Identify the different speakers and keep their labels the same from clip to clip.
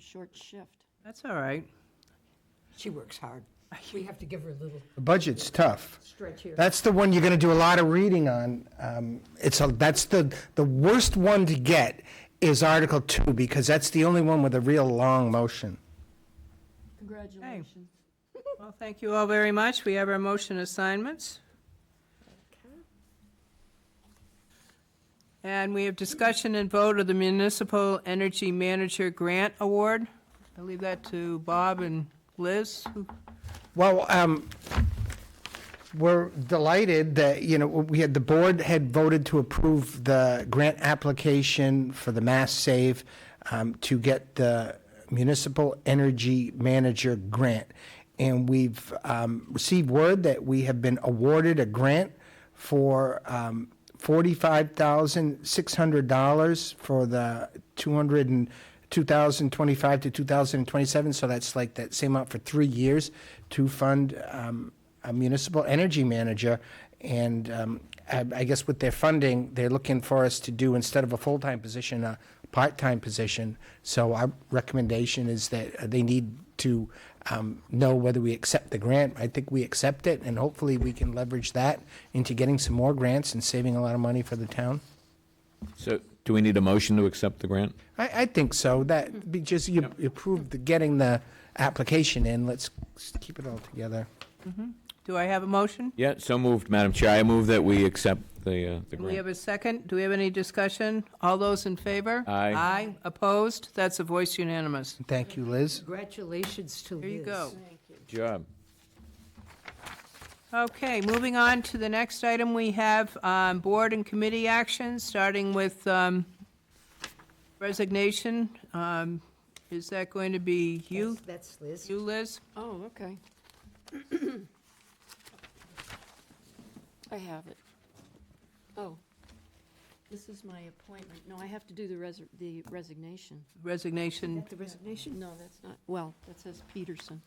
Speaker 1: short shift.
Speaker 2: That's all right.
Speaker 3: She works hard. We have to give her a little
Speaker 4: The budget's tough.
Speaker 3: stretch here.
Speaker 4: That's the one you're going to do a lot of reading on. Um, It's, a- that's the, the worst one to get is Article 2, because that's the only one with a real long motion.
Speaker 1: Congratulations.
Speaker 2: Well, thank you all very much. We have our motion assignments. And we have discussion and vote of the Municipal Energy Manager Grant Award. I'll leave that to Bob and Liz. who-
Speaker 4: Well, um, we're delighted that, you know, we had, the board had voted to approve the grant application for the Mass Save um, to get the Municipal Energy Manager Grant. And we've um, received word that we have been awarded a grant for um, $45,600 for the 200 and 2025 to 2027, so that's like that same amount for three years to fund um, a municipal energy manager. And um, I I guess with their funding, they're looking for us to do, instead of a full-time position, a part-time position. So our recommendation is that uh, they need to um, know whether we accept the grant. I think we accept it, and hopefully we can leverage that into getting some more grants and saving a lot of money for the town.
Speaker 5: So do we need a motion to accept the grant?
Speaker 4: I, I think so, that, be- just you you approved the, getting the application in, let's s- keep it all together.
Speaker 2: Do I have a motion?
Speaker 5: Yeah, so moved, Madam Chair. I move that we accept the, uh, the
Speaker 2: Do we have
Speaker 5: grant.
Speaker 2: a second? Do we have any discussion? All those in favor?
Speaker 5: Aye.
Speaker 2: Aye. Opposed? That's a voice unanimous.
Speaker 4: Thank you, Liz.
Speaker 3: Congratulations to Liz.
Speaker 2: Here you go.
Speaker 5: Good Job.
Speaker 2: Okay, moving on to the next item, we have um, board and committee actions, starting with um, resignation. Um, Is that going to be you,
Speaker 3: That's- That's Liz.
Speaker 2: you, Liz?
Speaker 1: Oh, okay. I have it. Oh, this is my appointment. No, I have to do the resi- the resignation.
Speaker 2: Resignation,
Speaker 3: The resignation.
Speaker 1: No, that's not, well, that says Peterson.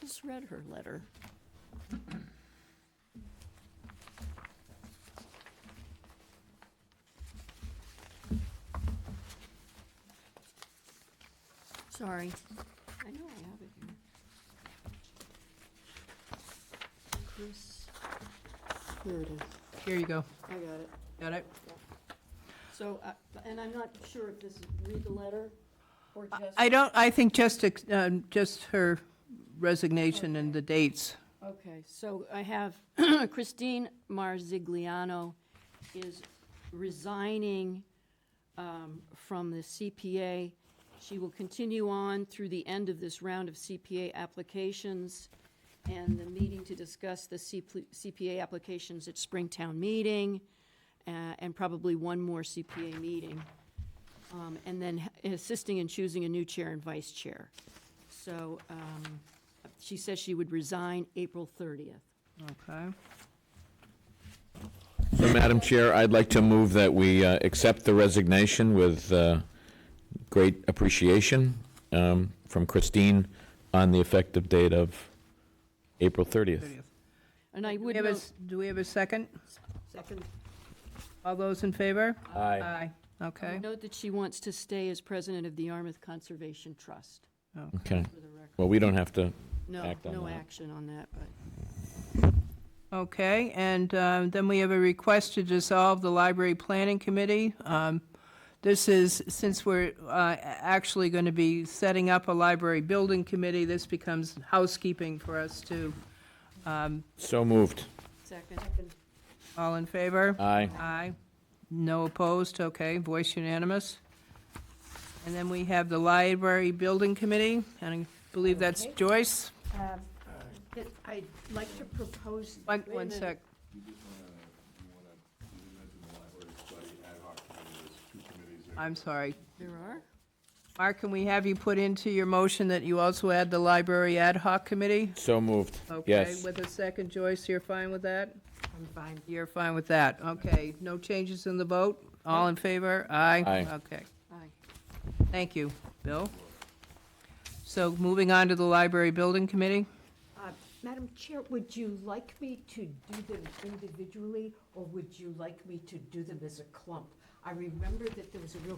Speaker 1: Just read her letter. Sorry. I know I have it here. Chris, here it is.
Speaker 2: here you go.
Speaker 1: I got it.
Speaker 2: Got it?
Speaker 1: So, uh, and I'm not sure if this is read the letter or just.
Speaker 2: I don't, I think just, ex- um, just her resignation and the dates.
Speaker 1: Okay, so I have Christine Marzigliano is resigning um, from the CPA. She will continue on through the end of this round of CPA applications and the meeting to discuss the CP CPA applications at Springtown Meeting uh, and probably one more CPA meeting. Um, And then assisting in choosing a new chair and vice chair. So um, she says she would resign April 30th.
Speaker 2: Okay.
Speaker 5: So, Madam Chair, I'd like to move that we uh, accept the resignation with uh, great appreciation um, from Christine on the effective date of April 30th.
Speaker 1: And I would
Speaker 2: Do we have a
Speaker 1: note,
Speaker 2: s- Do we have a second?
Speaker 3: Second.
Speaker 2: All those in favor?
Speaker 5: Aye.
Speaker 2: Aye.
Speaker 1: I
Speaker 2: Okay,
Speaker 1: would note that she wants to stay as president of the Yarmouth Conservation Trust,
Speaker 5: Okay.
Speaker 1: for the record.
Speaker 5: Well, we don't have to,
Speaker 1: No,
Speaker 5: Act on
Speaker 1: no
Speaker 5: that.
Speaker 1: action on that, but
Speaker 2: okay, and um, then we have a request to dissolve the Library Planning Committee. Um, This is, since we're uh, actually going to be setting up a library building committee, this becomes housekeeping for us to,
Speaker 5: so moved.
Speaker 1: second.
Speaker 2: all in favor?
Speaker 5: Aye.
Speaker 2: Aye. No opposed, okay, voice unanimous. And then we have the Library Building Committee, and I believe that's
Speaker 3: Okay.
Speaker 2: Joyce.
Speaker 3: Um, th- I'd like to propose.
Speaker 2: One,
Speaker 3: Wait a
Speaker 2: one
Speaker 3: minute.
Speaker 2: sec. I'm sorry.
Speaker 1: There are?
Speaker 2: Mark, can we have you put into your motion that you also add the Library Ad Hoc Committee?
Speaker 5: So moved.
Speaker 2: Okay,
Speaker 5: Yes.
Speaker 2: with a second, Joyce, you're fine with that?
Speaker 3: I'm fine.
Speaker 2: You're fine with that, okay. No changes in the vote? All in favor? Aye?
Speaker 5: Aye.
Speaker 2: Okay,
Speaker 1: Aye.
Speaker 2: thank you, Bill. So moving on to the Library Building Committee?
Speaker 3: Uh, Madam Chair, would you like me to do them individually, or would you like me to do them as a clump? I remember that there was a real